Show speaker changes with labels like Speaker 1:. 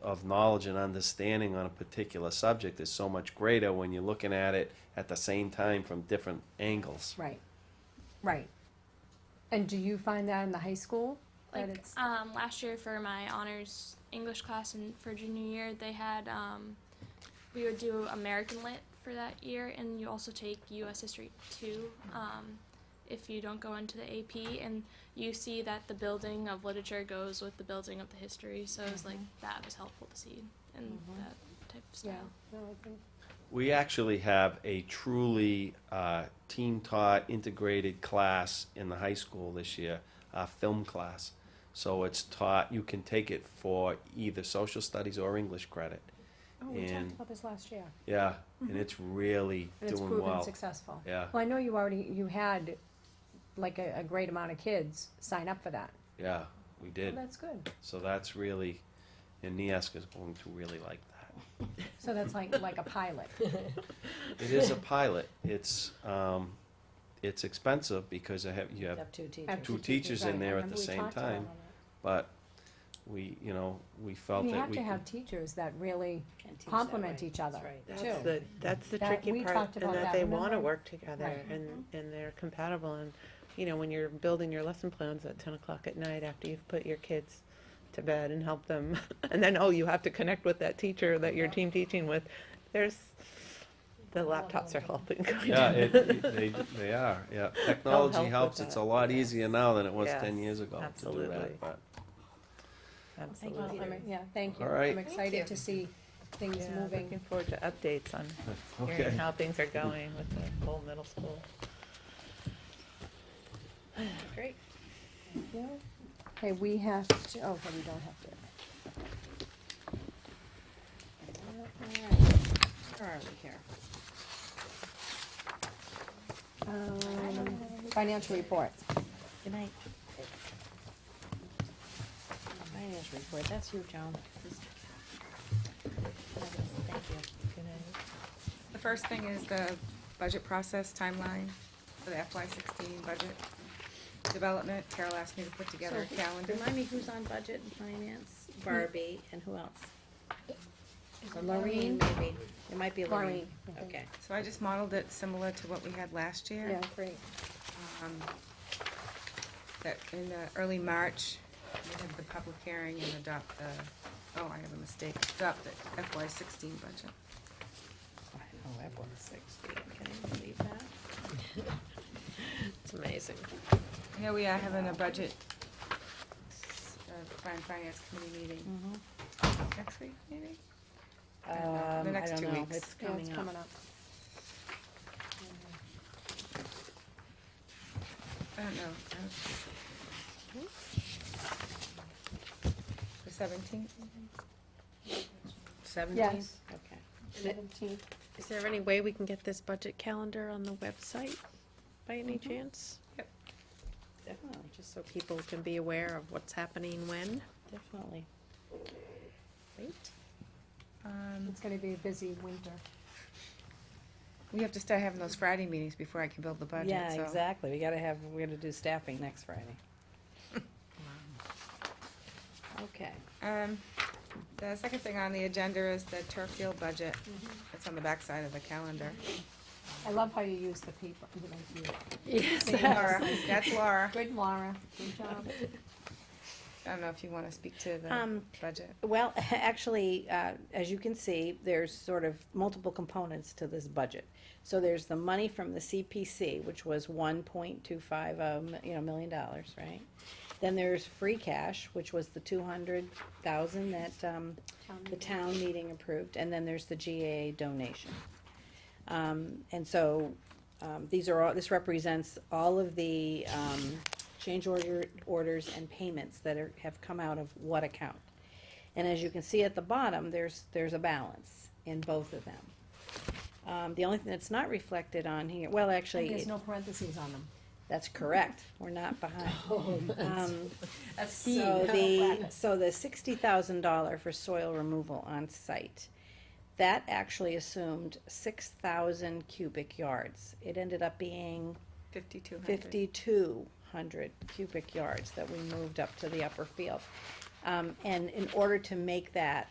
Speaker 1: of knowledge and understanding on a particular subject is so much greater when you're looking at it at the same time from different angles.
Speaker 2: Right, right. And do you find that in the high school? That
Speaker 3: Like
Speaker 2: it's,
Speaker 3: um, last year for my honors English class and for junior year, they had um, we would do American Lit for that year, and you also take U.S. History too. Um, if you don't go into the AP, and you see that the building of literature goes with the building of the history, so it's like that was helpful to see in that type of style.
Speaker 2: Mm-hmm. yeah, no, I think,
Speaker 1: We actually have a truly uh, team taught integrated class in the high school this year, a film class. So it's taught, you can take it for either social studies or English credit.
Speaker 2: oh, we talked
Speaker 1: And-
Speaker 2: about this last year.
Speaker 1: Yeah, and it's really
Speaker 2: Mm-hmm. And it's
Speaker 1: doing
Speaker 2: proven
Speaker 1: well.
Speaker 2: successful.
Speaker 1: Yeah,
Speaker 2: Well, I know you already, you had like a, a great amount of kids sign up for that.
Speaker 1: yeah, we
Speaker 2: Well,
Speaker 1: did.
Speaker 2: that's good.
Speaker 1: So that's really, and Nieska's going to really like that.
Speaker 2: So that's like, like a pilot.
Speaker 1: It is a pilot. It's, um, it's expensive because I have, you have
Speaker 4: Have two teachers.
Speaker 2: Have
Speaker 1: Two teachers in
Speaker 2: right, I
Speaker 1: there at the
Speaker 2: remember we
Speaker 1: same
Speaker 2: talked about
Speaker 1: time.
Speaker 2: all that.
Speaker 1: But we, you know, we felt
Speaker 2: We
Speaker 1: that
Speaker 2: have
Speaker 1: we
Speaker 2: to have
Speaker 1: could,
Speaker 2: teachers that really,
Speaker 4: Can't teach that
Speaker 2: complement
Speaker 4: way.
Speaker 2: each other.
Speaker 4: That's right.
Speaker 2: Too.
Speaker 5: That's the, that's the
Speaker 2: That- we
Speaker 5: tricky
Speaker 2: talked
Speaker 5: part,
Speaker 2: about
Speaker 5: and
Speaker 2: that,
Speaker 5: that they wanna
Speaker 2: remember?
Speaker 5: work together,
Speaker 2: Right. Mm-hmm.
Speaker 5: and, and they're compatible, and, you know, when you're building your lesson plans at ten o'clock at night after you've put your kids to bed and help them, and then, oh, you have to connect with that teacher that you're team teaching with, there's, the laptops are helping.
Speaker 1: yeah, it, it- they, they are, yeah. Technology
Speaker 5: help with
Speaker 1: helps. It's
Speaker 5: that.
Speaker 1: a lot easier now than it was
Speaker 5: Yes,
Speaker 1: ten years ago to do
Speaker 5: absolutely.
Speaker 1: that, but,
Speaker 2: Well,
Speaker 5: Absolutely.
Speaker 2: I'm- yeah, thank you.
Speaker 1: All right.
Speaker 2: I'm excited to see things
Speaker 5: Yeah, looking
Speaker 2: moving.
Speaker 5: forward to updates on
Speaker 1: okay.
Speaker 5: hearing how things are going with the whole middle school. Great.
Speaker 2: Okay, we have to, oh, okay, we don't have to.
Speaker 4: Alright, Where are we here?
Speaker 2: Um, Financial report.
Speaker 4: Good night. Finance report, that's you, Joan. Thank you.
Speaker 5: Good night.
Speaker 6: The first thing is the budget process timeline for the FY sixteen budget development. Carol asked me to put together a
Speaker 4: So,
Speaker 6: calendar.
Speaker 4: Remind me who's on budget and finance, Barbie, and who else? Or
Speaker 2: Lorraine.
Speaker 4: Maybe, it might be Lorraine.
Speaker 2: Lorraine, I think.
Speaker 4: Okay.
Speaker 6: So I just modeled it similar to what we had last year.
Speaker 2: Yeah, great.
Speaker 6: um, That in uh, early March, we had the public hearing and adopt the, oh, I have a mistake, adopt the FY sixteen budget.
Speaker 4: However, sixty, can you believe that? It's amazing.
Speaker 6: Here we are having a budget, uh, fin- finance committee meeting
Speaker 4: Mm-hmm.
Speaker 6: next week, maybe?
Speaker 4: Um,
Speaker 6: don't know. The
Speaker 4: I
Speaker 6: next
Speaker 4: don't
Speaker 6: two
Speaker 4: know,
Speaker 6: weeks.
Speaker 4: it's
Speaker 2: Yeah,
Speaker 4: coming
Speaker 2: it's
Speaker 4: up.
Speaker 2: coming up.
Speaker 6: I don't know. I don't- The seventeenth?
Speaker 2: Yes,
Speaker 4: Okay.
Speaker 2: seventeenth.
Speaker 7: Is there any way we can get this budget calendar on the website by any
Speaker 6: Mm-hmm.
Speaker 7: chance?
Speaker 4: Definitely,
Speaker 7: Just so people can be aware of what's happening when.
Speaker 4: definitely. Great.
Speaker 6: Um,
Speaker 2: It's gonna be a busy winter.
Speaker 6: we have to start having those Friday meetings before I can build the budget,
Speaker 4: Yeah,
Speaker 6: so.
Speaker 4: exactly, we gotta have, we're gonna do staffing next Friday. Okay.
Speaker 6: Um, the second thing on the agenda is the turf field budget.
Speaker 4: Mm-hmm.
Speaker 6: It's on the backside of the calendar.
Speaker 2: I love how you use the paper. you like you-
Speaker 7: Yes.
Speaker 6: Laura, that's Laura.
Speaker 2: Good, Laura. Good job.
Speaker 6: I don't know if you wanna speak to the
Speaker 4: Um,
Speaker 6: budget.
Speaker 4: Well, actually, uh, as you can see, there's sort of multiple components to this budget. So there's the money from the CPC, which was one point two five, um, you know, million dollars, right? Then there's free cash, which was the two hundred thousand that, um, the town meeting approved, and then there's the GA donation. Um, and so, um, these are all, this represents all of the, um, change order, orders and payments that are, have come out of what account. And as you can see at the bottom, there's, there's a balance in both of them. Um, the only thing that's not reflected on here, well, actually,
Speaker 2: There's
Speaker 4: it-
Speaker 2: no parentheses on them.
Speaker 4: that's correct, we're not behind.
Speaker 2: Oh,
Speaker 4: Um,
Speaker 2: That's
Speaker 4: so the, so the sixty thousand dollar for soil removal on site, that actually assumed six thousand cubic yards. It ended up being
Speaker 6: Fifty-two hundred.
Speaker 4: fifty-two hundred cubic yards that we moved up to the upper field. Um, and in order to make that